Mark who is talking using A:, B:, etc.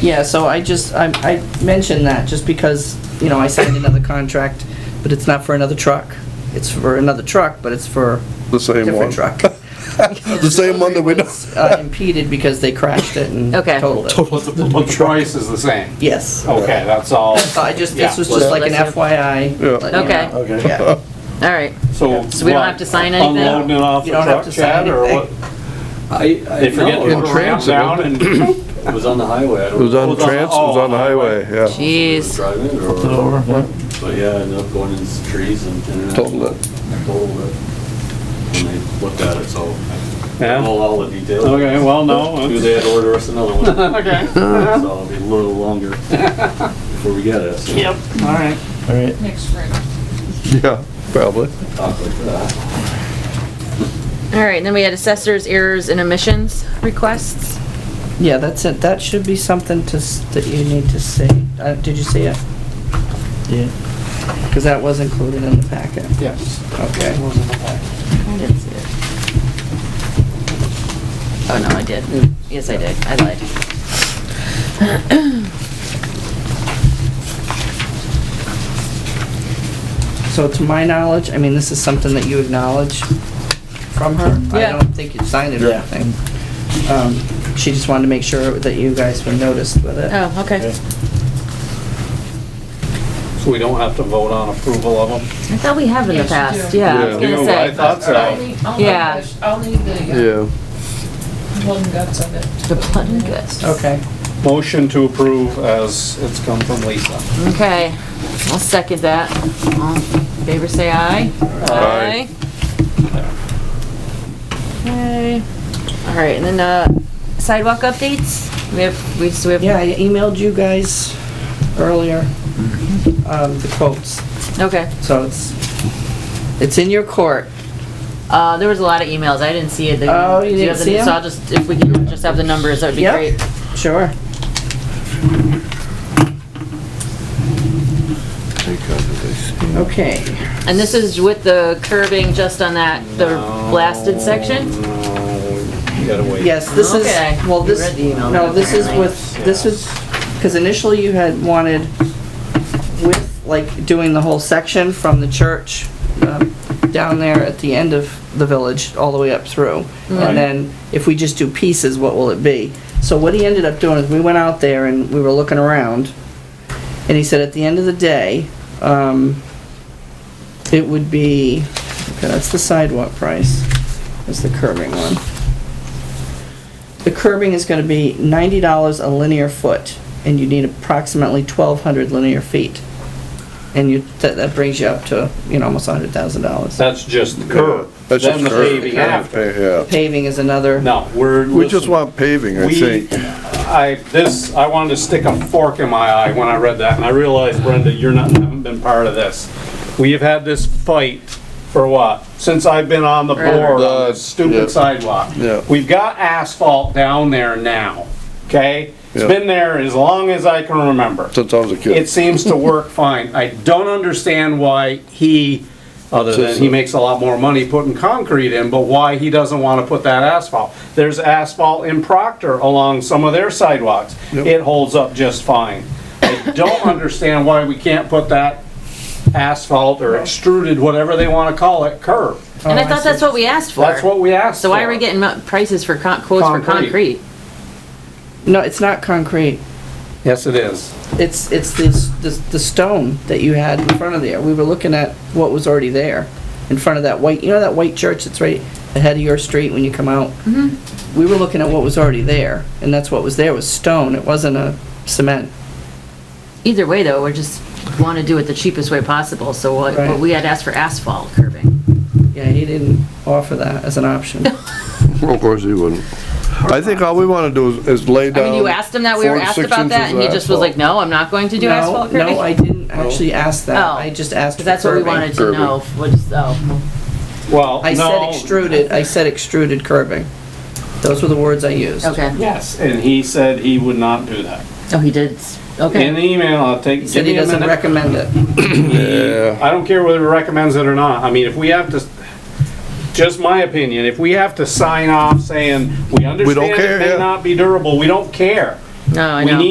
A: Yeah, so I just, I, I mentioned that just because, you know, I signed another contract, but it's not for another truck. It's for another truck, but it's for
B: The same one.
A: different truck.
B: The same one that we know.
A: Uh, impeded because they crashed it and
C: Okay.
A: totaled it.
D: But the, but the price is the same.
A: Yes.
D: Okay, that's all.
A: So I just, this
D: Yeah.
A: was just like an
C: Listen.
A: FYI.
B: Yeah.
A: letting you
C: Okay.
A: know.
E: Okay.
A: Yeah.
C: All right.
D: So.
C: So we don't
D: what,
C: have to sign anything?
D: Unloading it off
A: You
D: the
A: don't have to
D: truck,
A: sign
D: Chad, or what?
A: anything.
E: I, I
D: They forget
E: know,
D: to put a ramp
B: transit,
D: down and,
E: it was on the highway. I
B: It
E: don't
B: was
E: know
B: on the trans, it was on
D: oh,
B: the highway, yeah.
E: if
C: Jeez.
E: it was Driving
D: it
E: or,
D: over, yeah.
E: but yeah, I ended up going in the trees and. and-
B: Totaled it.
E: Totaled it. When they looked at it, so I
D: yeah.
E: know all the details.
D: Okay, well, no.
E: Knew
D: it's-
E: they had to order us another one, so
D: Okay.
E: it'll be a little longer before we get it, so
D: Yep, all right.
F: All right,
G: next spring.
B: Yeah, probably.
E: talk like that.
C: All right, and then we had assessors, errors, and omissions requests.
A: Yeah, that's it. That should be something to, s- that you need to see. Uh, did you see it?
F: yeah.
A: Because that was included in the packet.
D: Yes.
A: Okay.
C: I didn't see it. Oh, no, I did. Yes, I did. I lied.
A: So to my knowledge, I mean, this is something that you acknowledge from her. I
C: Yeah.
A: don't think you signed it or
F: Yeah.
A: anything. Um, She just wanted to make sure that you guys were noticed with it.
C: Oh, okay.
F: Okay.
D: So we don't have to vote on approval of them?
C: I thought we have in the
G: Yes, you
C: past,
G: do.
C: yeah, I was
B: Yeah.
C: gonna
D: Do, I
C: say.
D: thought
G: I'll
D: so.
G: need, I'll need,
C: Yeah.
G: the- I'll need the
B: Yeah.
G: uh, blood and guts of it.
C: The blood and guts.
A: Okay.
D: Motion to approve as it's come from Lisa.
C: Okay, I'll second that. All in favor, say aye.
B: Aye.
C: Okay, all right, and then, uh, sidewalk updates? We have, we, so we have.
A: Yeah, I emailed you guys earlier, um, the quotes.
C: Okay,
A: So it's, it's in your court.
C: uh, there was a lot of emails, I didn't see it. They-
A: Oh, you
C: do
A: didn't
C: have the-
A: see 'em?
C: So I'll just, if we can just have the numbers, that'd be
A: Yep.
C: great.
A: Sure. Okay.
C: And this is with the curbing just on that, the blasted section?
D: No, we gotta wait.
A: Yes, this is,
C: Okay.
A: well,
C: You
A: this,
C: read the email
A: no,
C: then,
A: this is
C: apparently.
A: with, this is, because initially you had wanted with, like, doing the whole section from the church um, down there at the end of the village, all the way up through.
D: Right.
A: And then if we just do pieces, what will it be? So what he ended up doing is we went out there and we were looking around, and he said at the end of the day, um, it would be, okay, that's the sidewalk price, that's the curving one. The curbing is gonna be ninety dollars a linear foot, and you need approximately twelve hundred linear feet. And you, that, that brings you up to, you know, almost hundred thousand dollars.
D: That's just the curb.
B: That's just
D: Then the
B: curb.
D: paving after.
B: Yeah.
A: Paving is another.
D: No, we're.
B: We just
D: listen.
B: want paving, I
D: We-
B: think.
D: I, this, I wanted to stick a fork in my eye when I read that, and I realized, Brenda, you're not, haven't been part of this. We have had this fight for what? Since I've been on the board on this
B: Uh, Yeah.
D: stupid sidewalk.
B: Yeah.
D: We've got asphalt down there now, okay? It's
B: Yeah.
D: been there as long as I can remember.
B: Since I was a
D: It
B: kid.
D: seems to work fine. I don't understand why he, other than he makes a lot more money putting concrete in, but why he doesn't want to put that asphalt. There's asphalt in Proctor along some of their sidewalks. It holds up just fine. I don't understand why we can't put that asphalt or extruded, whatever they want to call it, curb.
C: And I
A: Oh, I
C: thought that's what we asked for.
D: That's what we asked
C: So why are
D: for.
C: we getting mo- prices for con, quotes for
D: Concrete.
C: concrete?
A: No, it's not concrete.
D: Yes, it is.
A: It's, it's this, this, the stone that you had in front of there. We were looking at what was already there, in front of that white, you know that white church that's right ahead of your street when you come out?
C: Mm-hmm.
A: We were looking at what was already there, and that's what was there, was stone. It wasn't a cement.
C: Either way, though, we're just want to do it the cheapest way possible, so what,
A: Right.
C: what we had asked for asphalt curbing.
A: Yeah, he didn't offer that as an option.
B: Of course he wouldn't. I think all we wanna do is- is lay
C: I
B: down.
C: mean, you asked him that, we were
B: four to
C: asked
B: six
C: about that,
B: inches
C: and he
B: of
C: just was like,
B: asphalt.
C: no, I'm not going to do
A: No,
C: asphalt curbing?
A: No, I didn't actually ask that.
C: Oh.
A: I just asked for
C: Because that's what we
A: curbing.
C: wanted to
B: Curbing.
C: know, was, oh,
D: Well,
A: I said
D: no.
A: extruded, I said extruded curbing. Those were the words I used.
C: okay.
D: Yes, and he said he would not do that.
C: Oh, he did, s- okay.
D: In the email, I'll
A: He
D: take, give
A: said he
D: me a
A: doesn't
D: minute.
A: recommend it.
B: Yeah.
D: I don't care whether it recommends it or not. I mean, if we have to, just my opinion, if we have to sign off saying, we
B: don't
D: understand
B: care,
D: it may
B: yeah.
D: not be durable, we don't care.
C: No, Oh, I
D: We
C: know.
D: need